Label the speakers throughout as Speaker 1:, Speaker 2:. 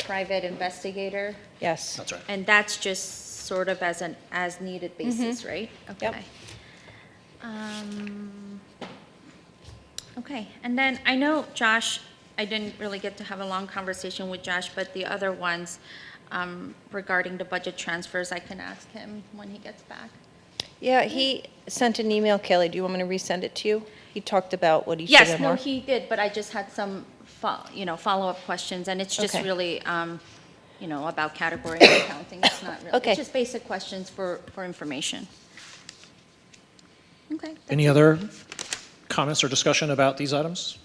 Speaker 1: private investigator,
Speaker 2: Yes.
Speaker 3: That's right.
Speaker 1: and that's just sort of as an as-needed basis, right?
Speaker 2: Yep.
Speaker 1: Okay. Um, Okay, and then I know Josh, I didn't really get to have a long conversation with Josh, but the other ones um, regarding the budget transfers, I can ask him when he gets back.
Speaker 2: Yeah, he sent an email, Kelly. Do you want me to resend it to you? He talked about what he should
Speaker 1: Yes,
Speaker 2: have
Speaker 1: no,
Speaker 2: more.
Speaker 1: he did, but I just had some, fo- you know, follow-up questions, and it's just
Speaker 2: Okay.
Speaker 1: really, um, you know, about category and accounting, it's not really,
Speaker 2: Okay.
Speaker 1: it's just basic questions for, for information. Okay,
Speaker 3: Any other comments or discussion about these items?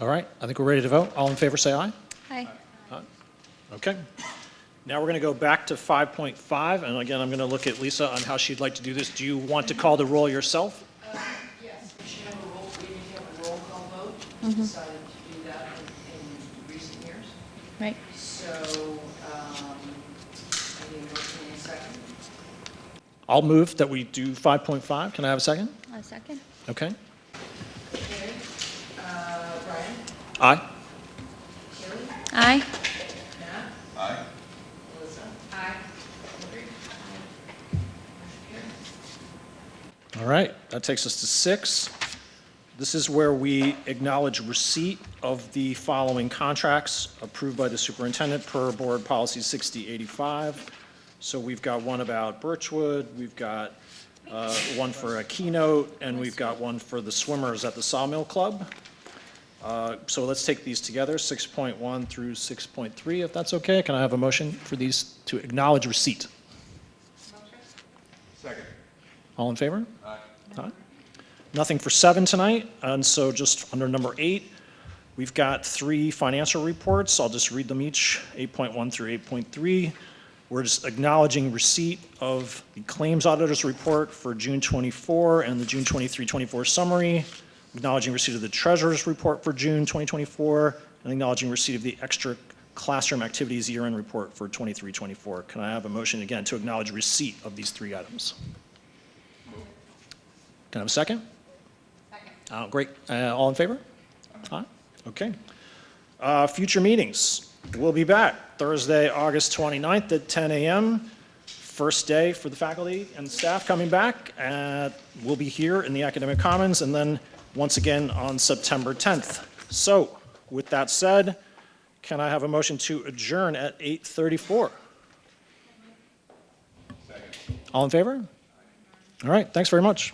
Speaker 3: All right, I think we're ready to vote. All in favor, say aye.
Speaker 1: hi.
Speaker 3: Okay. Now we're going to go back to 5.5, and again, I'm going to look at Lisa on how she'd like to do this. Do you want to call the roll yourself?
Speaker 4: Yes, we should have a roll, we need to have a roll call vote. We decided to do that in in recent years.
Speaker 1: Right.
Speaker 4: So, um, I need a motion in a second.
Speaker 3: I'll move that we do 5.5. Can I have a second?
Speaker 1: A second?
Speaker 3: Okay.
Speaker 4: Okay, uh, Brian,
Speaker 3: Aye.
Speaker 4: Kelly,
Speaker 1: Aye.
Speaker 4: Matt? Aye. Melissa? Aye. Hillary?
Speaker 3: All right, that takes us to six. This is where we acknowledge receipt of the following contracts approved by the superintendent per Board Policy 6085. So we've got one about Birchwood, we've got uh, one for a keynote, and we've got one for the swimmers at the Sawmill Club. Uh, So let's take these together, 6.1 through 6.3, if that's okay. Can I have a motion for these to acknowledge receipt?
Speaker 5: Second.
Speaker 3: All in favor? Aye. Nothing for seven tonight, and so just under number eight, we've got three financial reports. I'll just read them each, 8.1 through 8.3. We're just acknowledging receipt of the claims auditor's report for June 24 and the June 23, 24 summary, acknowledging receipt of the treasurer's report for June 2024, and acknowledging receipt of the extra classroom activities year-end report for 23, 24. Can I have a motion again to acknowledge receipt of these three items? Can I have a second? Second. Oh, great. Uh, All in favor? Aye. Okay. Uh, Future meetings. We'll be back Thursday, August 29th at 10 a.m. First day for the faculty and staff coming back. Uh, We'll be here in the Academic Commons and then once again on September 10th. So with that said, can I have a motion to adjourn at 8:34? All in favor? All right, thanks very much.